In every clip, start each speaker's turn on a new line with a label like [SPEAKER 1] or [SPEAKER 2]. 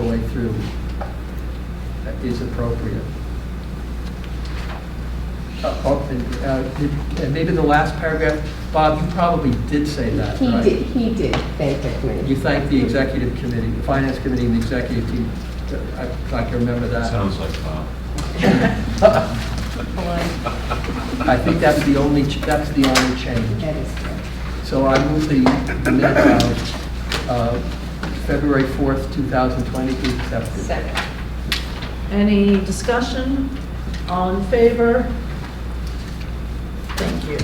[SPEAKER 1] through uh, is appropriate. Uh, oh, and, uh, did- and Maybe the last paragraph, Bob, you probably did say that,
[SPEAKER 2] He
[SPEAKER 1] right?
[SPEAKER 2] did, he did thank the committee.
[SPEAKER 1] You thanked the executive committee, the finance committee and the executive team. I- I can remember that.
[SPEAKER 3] Sounds like uh, Bob.
[SPEAKER 1] I think that's the only, ch- that's the only change.
[SPEAKER 2] That is correct.
[SPEAKER 1] So I move the the minutes of uh, February 4th, 2020 be accepted.
[SPEAKER 4] Second.
[SPEAKER 5] Any discussion? All in favor? Thank you.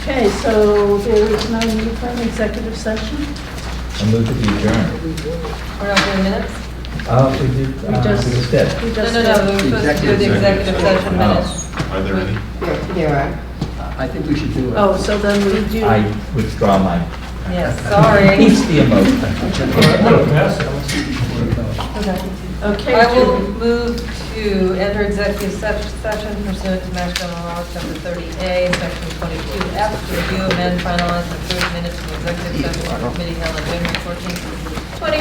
[SPEAKER 5] Okay, so there is no need for an executive session?
[SPEAKER 6] I move to be adjourned.
[SPEAKER 4] We're not doing minutes?
[SPEAKER 6] Uh, we did,
[SPEAKER 5] We
[SPEAKER 6] uh,
[SPEAKER 5] just-
[SPEAKER 6] we just did.
[SPEAKER 5] We
[SPEAKER 4] No,
[SPEAKER 5] just
[SPEAKER 4] no, no, we were
[SPEAKER 1] the
[SPEAKER 4] supposed to do the
[SPEAKER 3] executive
[SPEAKER 4] executive session
[SPEAKER 6] Oh.
[SPEAKER 4] minutes.
[SPEAKER 3] Are there any?
[SPEAKER 2] There- There are.
[SPEAKER 1] I think we should do it.
[SPEAKER 5] Oh, so then we do,
[SPEAKER 6] I withdraw my,
[SPEAKER 4] Yes, sorry.
[SPEAKER 6] it's the emotion.
[SPEAKER 4] I
[SPEAKER 5] okay,
[SPEAKER 4] will
[SPEAKER 5] do,
[SPEAKER 4] move to enter executive se- session pursuant to Mass General Law, Chapter 30A, Section 22F, to review, amend, finalize, and approve minutes from executive session of the committee held on January 14,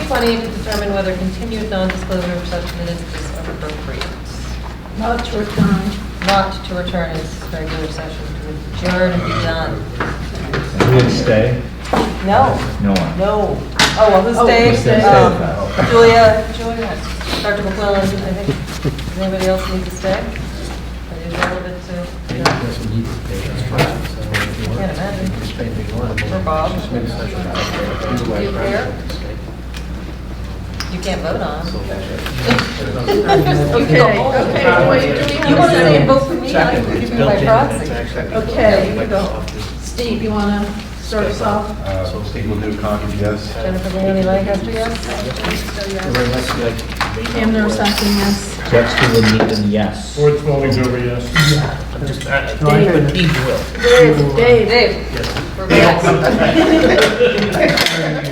[SPEAKER 4] 2020, to determine whether continued non-disclosure of such minutes is appropriate.
[SPEAKER 5] not to return.
[SPEAKER 4] Not to return as regular session, to adjourn and be done.
[SPEAKER 6] Who would stay?
[SPEAKER 4] No.
[SPEAKER 6] No one.
[SPEAKER 4] No. Oh, well, who
[SPEAKER 5] Oh,
[SPEAKER 4] stayed?
[SPEAKER 5] who stayed?
[SPEAKER 4] Um,
[SPEAKER 6] Stayed.
[SPEAKER 4] Julia, Julia, Dr. McClellan, I think. Does anybody else need to stay? Are you relevant to,
[SPEAKER 1] Maybe
[SPEAKER 4] you
[SPEAKER 1] it
[SPEAKER 4] know,
[SPEAKER 1] doesn't need to be there, right? So if you want,
[SPEAKER 4] Can't imagine.
[SPEAKER 1] you can just pay the one.
[SPEAKER 4] For Bob?
[SPEAKER 1] Just make a special out there.
[SPEAKER 4] You care? you can't vote on?
[SPEAKER 5] Okay, okay, wait, do we
[SPEAKER 4] You
[SPEAKER 5] have
[SPEAKER 4] want
[SPEAKER 5] a
[SPEAKER 4] to say
[SPEAKER 5] second?
[SPEAKER 4] vote for me, I can give you my
[SPEAKER 1] Second.
[SPEAKER 4] proxy.
[SPEAKER 5] Okay, you go. Steve, you want to start us off?
[SPEAKER 3] Uh,
[SPEAKER 7] So Steve will do Concord, yes.
[SPEAKER 4] Jennifer Leonie Lancaster, yes?
[SPEAKER 1] Very much like-
[SPEAKER 5] Pam Nursemkin, yes.
[SPEAKER 6] Jeff's will need them, yes.
[SPEAKER 8] Fourth voting's over, yes.
[SPEAKER 5] Dave. Dave, Dave.
[SPEAKER 4] Dave? Yes. We're back.